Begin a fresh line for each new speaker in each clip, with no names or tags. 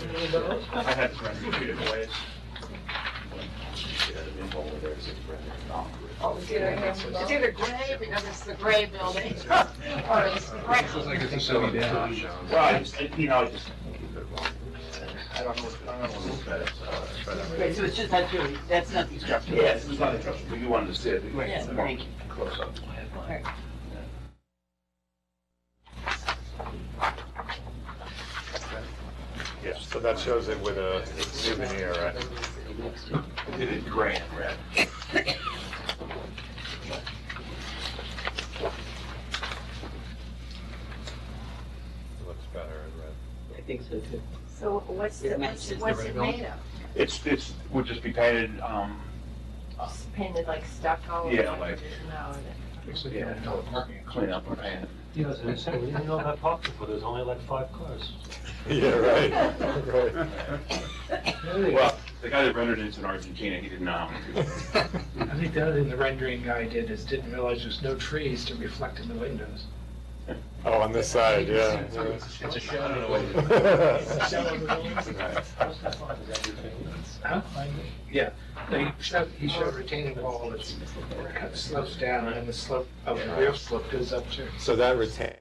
I had to run two different ways.
It's either it's either gray because it's the gray building, or it's brick.
it's a silly day.
Well, I just, I- you know, I just. I don't know, what- I don't know what that is. Uh, try that right.
Right, so it's just not really, that's not the structure.
Yeah, it's not interesting, but you wanted to see it.
Yes, thank you.
Close up.
Yeah, so that shows it with
uh,
a souvenir, right?
It is gray and red.
Looks better in red.
I think so too.
So what's the,
It
what's
matches
it-
the
what's it
rebuild.
made of?
It's, it's, would just be painted, um,
Just Painted like stucco? or
Yeah, like-
No.
yeah, clean up or paint.
Yeah, so it's- we didn't know about parking, but there's only like five cars.
Yeah, right, right.
Well, the guy that rendered it's in Argentina, he didn't, um,
I think the other thing the rendering guy did is didn't realize there's no trees to reflect in the windows.
Oh, on this side, yeah.
It's a- It's a
I don't know
shadow.
what it
Huh? Yeah, No, he showed, he showed retaining wall that's kind of slopes down and the slope of the real slope goes up too.
So that retain.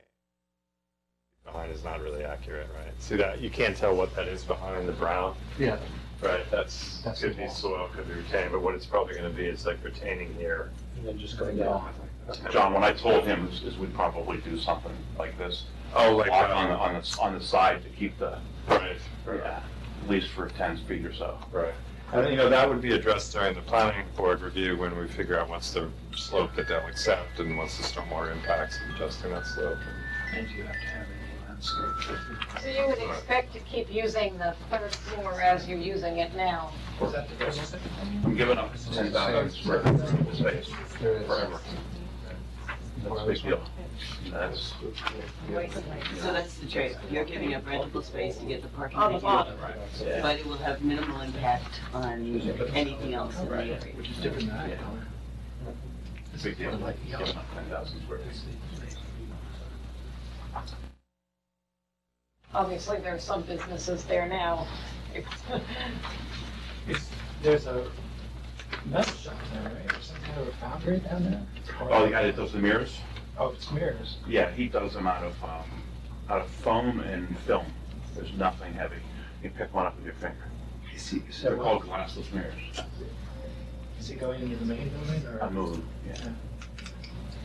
Behind is not really accurate, right? See that, you can't tell what that is behind the brown.
Yeah.
Right, that's,
That's
could
the
be
wall.
soil, could be retained, but what it's probably gonna be is like retaining here.
And then just going down.
is. John, what I told him is, is we'd probably do something like this.
Oh,
Block on the, on the, on the side to keep the,
Right, right,
yeah, at least for ten feet or so.
right. And, you know, that would be addressed during the planning board review when we figure out what's the slope that they'll accept and what's the stormwater impacts of adjusting that slope.
And you have to have any landscape.
So you would expect to keep using the third floor as you're using it now?
Is that the best thing?
I'm giving up ten thousand square feet of space forever. That's a big deal. That's,
So that's the trade. You're giving up rentable space to get the parking.
On the
that you
bottom.
want, But it will have minimal impact on anything else in the area.
Which is different than that.
it's a big deal, like, giving up ten thousand square feet.
Obviously, there are some businesses there now.
There's a metal shop there, right? Or some kind of a foundry down there?
Oh, the guy that does the mirrors?
Oh, it's mirrors.
Yeah, he does them out of, um, out of foam and film. There's nothing heavy. You pick one up with your finger. They're called glassless mirrors.
Is it going into the main building or?
I move them, yeah.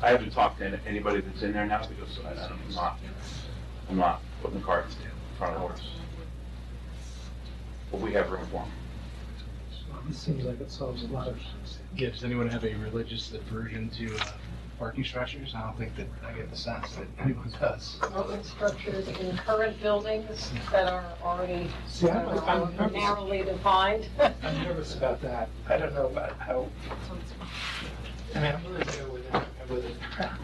I haven't talked to any- anybody that's in there now because I- I'm not, I'm not putting the cards in front of the horse. But we have room for them.
It seems like it solves a lot of.
Yeah, does anyone have a religious aversion to uh, parking structures? I don't think that, I get the sense that anyone does.
Open structures in current buildings that are already
See, I'm, I'm
uh,
nervous,
narrowly defined.
I'm nervous about that. I don't know about how. I mean, I'm really there with a, with a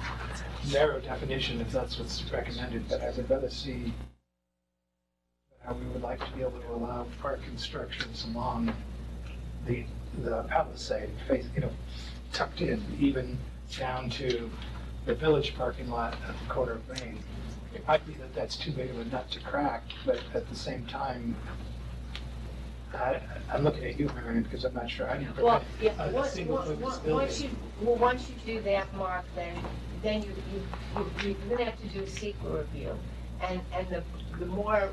narrow definition if that's what's recommended, but I would rather see how we would like to be able to allow park constructions along the, the palisade, face, you know, tucked in, even down to the village parking lot at the corner of Main. It might be that that's too big of a nut to crack, but at the same time, I, I'm looking at you, Marion, because I'm not sure I know. but
Well, yeah,
Uh,
once,
single
once,
purpose
once-
building.
once you, well, once you do that, Mark, then, then you, you, you- you're gonna have to do a secret review. And, and the, the more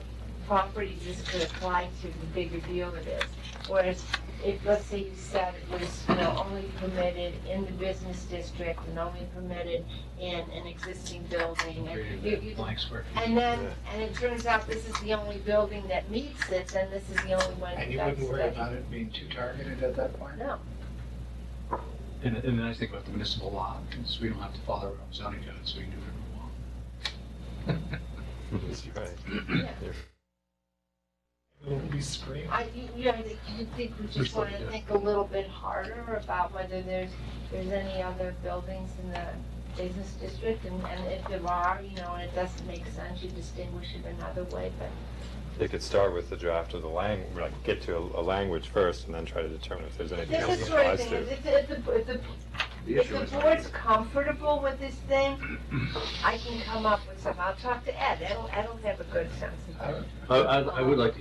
properties this could apply to, the bigger deal it is. Whereas, if, let's say you said it was, you know, only permitted in the business district and only permitted in an existing building, and you, you,
Blank square feet.
and then, and it turns out this is the only building that meets it, then this is the only one that's.
And you wouldn't worry about it being too targeted at that point?
No.
And, and then I think about the municipal law, because we don't have to follow our own zoning code, so we can do whatever we want.
Wouldn't we scream?
I, you- you know, I think- you think we just want to think a little bit harder about whether there's, there's any other buildings in the business district, and, and if there are, you know, and it doesn't make sense, you distinguish it another way, but
They could start with the draft of the lang, like, get to a, a language first and then try to determine if there's anything
this is
else that
sort of
applies
thing,
to.
if, if the, if the
The
If
issue
the
is.
board's comfortable with this thing, I can come up with something. I'll talk to Ed. Ed will Ed will have a good sense of it.
I, I I would like to